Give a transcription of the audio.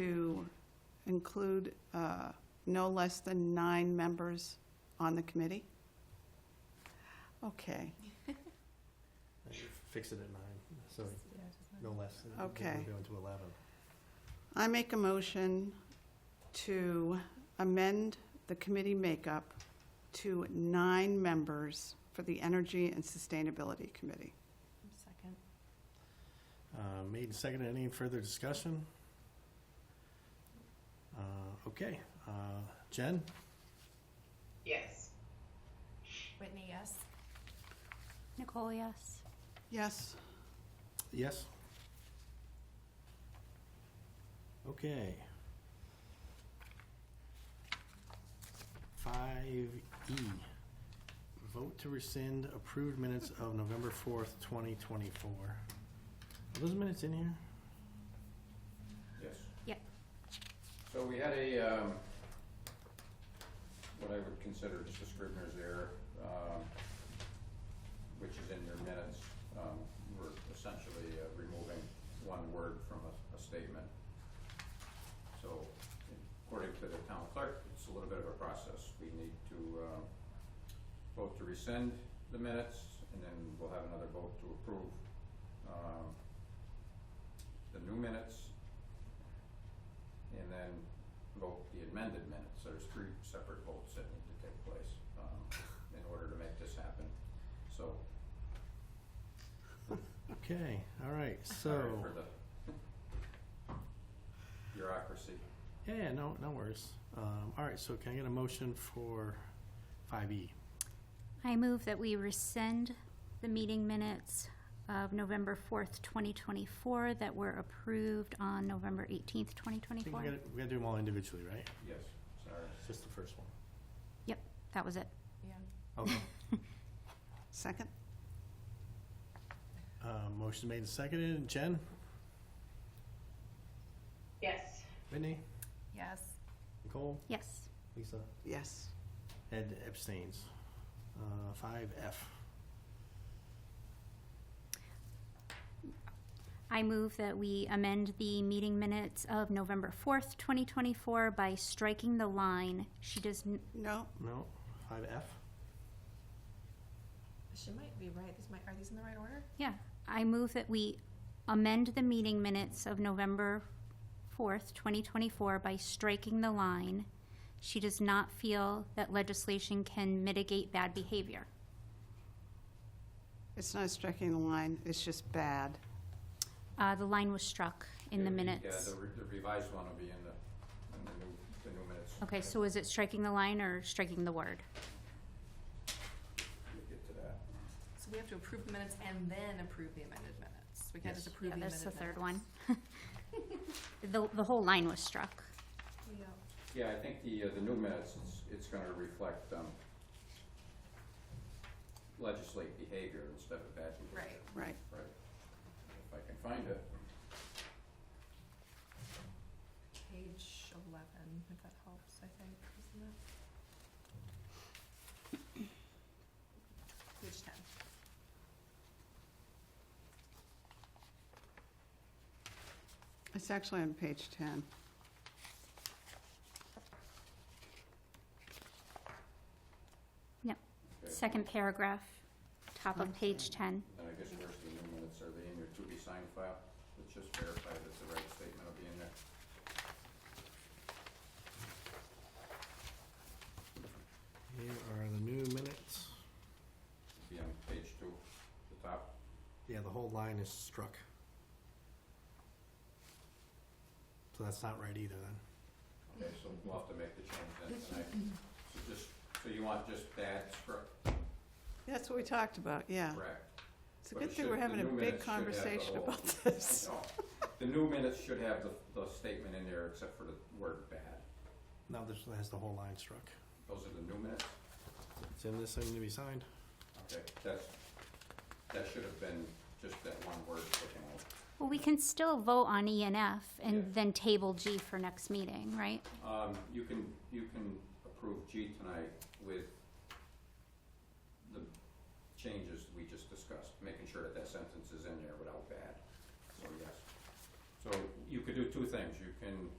to include uh, no less than nine members on the committee? Okay, I Fixed it at nine, so no less. than- Okay. We're down to eleven. I make a motion to amend the committee makeup to nine members for the Energy and Sustainability Committee. Second. Uh, Made and seconded, any further discussion? Uh, Okay, Uh, Jen, Yes. Whitney, yes? Nicole, yes. Yes, yes? Okay. Five E, vote to rescind approved minutes of November fourth, twenty twenty-four. Are those minutes in here? Yes. Yep. So we had a, um, what I would consider just a scrivener's error, um, which is in your minutes. Um, we're essentially uh, removing one word from a, a statement. So according to the town clerk, it's a little bit of a process. We need to, um, vote to rescind the minutes and then we'll have another vote to approve, um, the new minutes and then vote the amended minutes. There's three separate votes that need to take place, um, in order to make this happen. So, Okay, all right, so. sorry for the bureaucracy. Yeah, yeah, no, no worries. Um, all right, so can I get a motion for five E? I move that we rescind the meeting minutes of November 4th, 2024 that were approved on November 18th, I think 2024. we gotta, we gotta do them all individually, right? Yes, sorry. It's just the first one. That was it. Yeah. Okay. second? Uh, motion made and seconded. Jen? Yes. Whitney? Yes. Nicole? Yes. Lisa? Yes. Ed abstains. Uh, five F. I move that we amend the meeting minutes of November 4th, 2024 by striking the line, "She does, n- No, No, five F? She might be right. These might, are these in the right order? I move that we amend the meeting minutes of November 4th, 2024 by striking the line, "She does not feel that legislation can mitigate bad behavior." it's not striking the line, it's just bad. Uh, The line was struck in the Yeah, minutes. Yeah, the re- the revised one will be in the, in the new, the new minutes. Okay, so is it striking the line or striking the word? We'll get to that. So we have to approve the minutes and then approve the amended minutes. We can't just Yes. approve the Yeah, amended that's minutes. the third one. The the whole line was struck. Yeah. Yeah, I think the, uh, the new minutes, it's, it's gonna reflect, um, legislate behavior instead of bad behavior. Right. Right. Right. If I can find it. Page eleven, if that helps, I think, isn't it? Page ten. It's actually on page 10. Okay. Second paragraph, top of page 10. And I guess where's the new minutes, are they in your to be signed file? Let's just verify that the right statement will be in there. Here are the new minutes. It'll Be on page two, the top. Yeah, the whole line is struck. So that's not right either then. Okay, so we'll have to make the change then tonight. So just, so you want just that struck, That's what we talked about, yeah. correct? It's a But it good thing should- we're the having a new big minutes should have the conversation whole- about this. No, the new minutes should have the, the statement in there except for the word bad. Now this has the whole line struck. Those are the new minutes? It's in this thing to be signed. Okay, that's, that should have been just that one word taken out. Well, we can still vote on E and F Yeah. and then table G for next meeting, right? Um, you can, you can approve G tonight with the changes we just discussed, making sure that that sentence is in there without bad, so yes. So you could do two things, you can